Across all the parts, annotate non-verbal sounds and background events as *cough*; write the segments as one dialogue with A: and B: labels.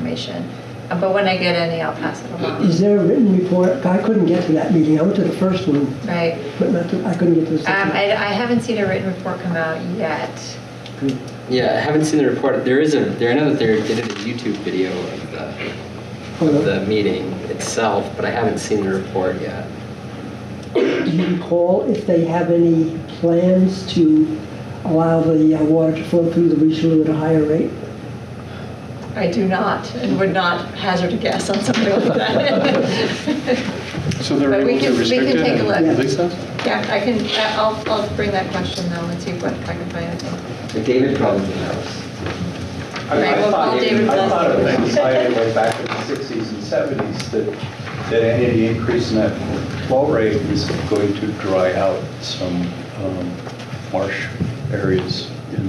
A: information. Uh, But when I get any, I'll pass it
B: *clears throat*
A: along, Um,
B: Is there a written report? I couldn't get to that meeting. I went to the first one,
A: right?
B: but not to, I couldn't get to the
A: Um,
B: second.
A: I, I haven't seen a written report come out yet.
B: Good.
C: Yeah, I haven't seen the report. There is a there another theory did a YouTube video of the of
B: Hold on.
C: the meeting itself, but I haven't seen the report yet.
B: Do you recall if they have any plans to allow the uh, water to flow through the regional at a higher rate?
A: I do not, and would not hazard a guess on something like that. *laughs*
D: So they're
A: But we
D: able
A: can-
D: to
A: we
D: restrict
A: can
D: it
A: take a
D: and
A: look.
D: release us?
A: Yeah, I can, I'll, I'll bring that question though and see what I can find out.
C: David probably knows.
E: I mean,
A: Right, we'll call
E: I thought,
A: David
E: I thought of
A: Blaine.
E: things, I way back in the 60s and 70s, that, that any increase in that flow rate was going to dry out some um, marsh areas in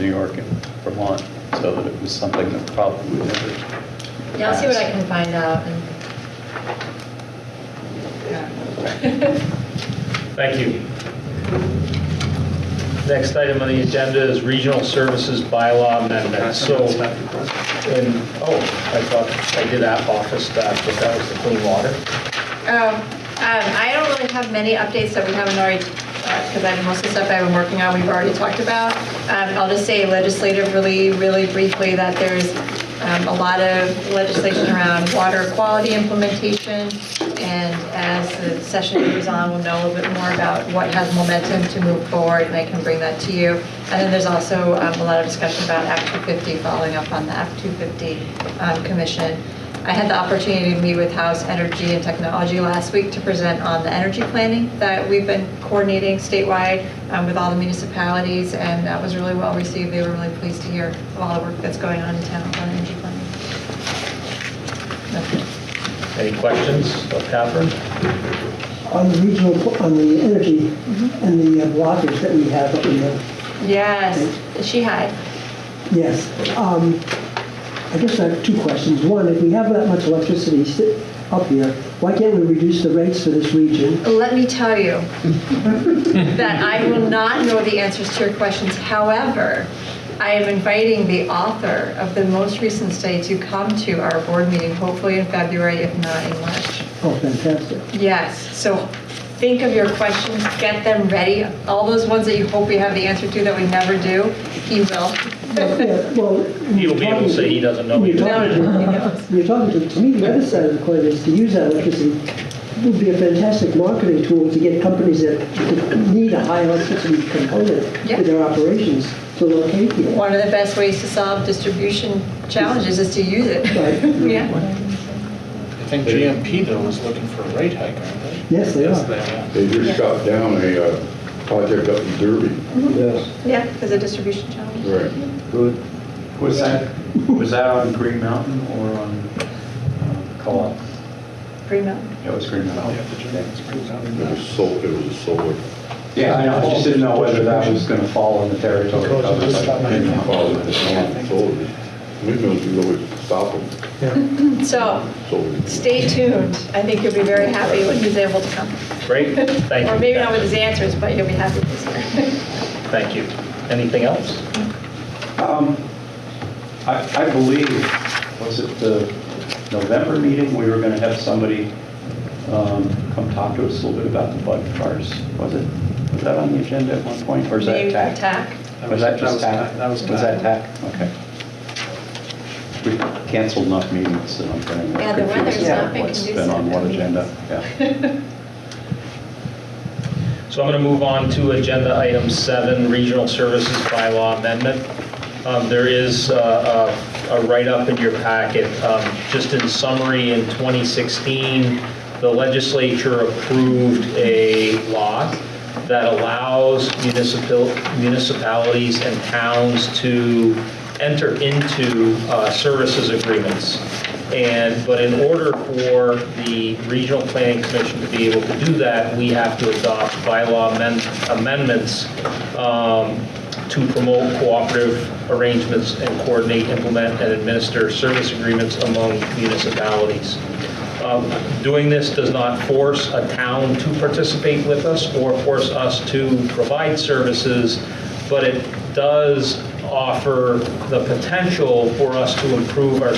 E: New York and Vermont, so that it was something that probably would never.
A: Yeah, I'll see what I can find out and. Yeah.
F: Thank you. Next item on the agenda is regional services bylaw amendment. So, in, oh, I thought I did that office staff, but that was the clean water.
A: Um, um, I don't really have many updates that we haven't already, because I have most of the stuff I've been working on, we've already talked about. Um, I'll just say legislatively, really briefly, that there's um, a lot of legislation around water quality implementation. And as the session goes on, we'll know a little bit more about what has momentum to move forward, and I can bring that to you. And then there's also um, a lot of discussion about Act 250, following up on the Act 250 um, Commission. I had the opportunity to meet with House Energy and Technology last week to present on the energy planning that we've been coordinating statewide um, with all the municipalities, and that was really well received. They were really pleased to hear of all the work that's going on in town on energy planning. That's it.
F: Any questions of Catherine?
B: On the regional, on the energy and the uh, blockage that we have up in the
A: Yes, she had.
B: Yes. Um, I guess I have two questions. One, if we have that much electricity sit up here, why can't we reduce the rates for this region?
A: Let me tell you *laughs* that I will not know the answers to your questions. However, I am inviting the author of the most recent study to come to our board meeting, hopefully in February, if not in March.
B: Oh, fantastic.
A: Yes, so think of your questions, get them ready. All those ones that you hope we have the answer to that we never do, he will.
B: Yeah, Well,
F: He'll be able to say he doesn't know.
B: You're
F: either.
A: No, no,
B: talking to,
A: he knows.
B: you're talking to, to me, the other side of the coin is to use that electricity would be a fantastic marketing tool to get companies that that need a high electricity component
A: Yeah.
B: to their operations to locate here.
A: One of the best ways to solve distribution challenges is to use it. *laughs*
B: Right.
A: Yeah.
D: I think GMP though was looking for a rate hike, aren't they?
B: Yes, they are.
D: are.
G: They just shot down a uh, project up in Derby.
A: Yeah, because of distribution challenge.
G: Right.
E: Good. Was that, was that on Green Mountain or on uh, Co-op?
A: Green Mountain.
E: That was Green Mountain.
G: It was sol, it was a solar.
E: Yeah, I know, I just didn't know whether that was going to fall in the territory of
D: Because of this
E: like, Green Mountain.
G: Well, it was solar- solar. Windmills, you always stop them,
A: So
G: solar.
A: stay tuned. I think you'll be very happy when he's able to come.
F: Great, thank you.
A: Or maybe not with
F: Catherine.
A: his answers, but you'll be happy this year.
F: Thank you. Anything else?
E: Um, I I believe, was it the November meeting, we were going to have somebody um, come talk to us a little bit about the bug cars? Was it, was that on the agenda at one point, or is that
A: Maybe
E: TAC?
A: attack.
E: Was that just TAC?
D: That was
E: that TAC? Okay. We canceled enough meetings, so I'm getting
A: Yeah, the
E: confused
A: weather's not
E: about
A: been
E: what's been
A: conducive
E: on
A: to
E: what
A: meetings.
E: agenda. Yeah.
F: So I'm going to move on to agenda item seven, regional services bylaw amendment. Um, There is uh, a a write-up in your packet. Um, Just in summary, in 2016, the legislature approved a law that allows municipal municipalities and towns to enter into uh, services agreements. And, but in order for the Regional Planning Commission to be able to do that, we have to adopt bylaw amend- amendments um, to promote cooperative arrangements and coordinate, implement, and administer service agreements among municipalities. Um, Doing this does not force a town to participate with us or force us to provide services, but it does offer the potential for us to improve our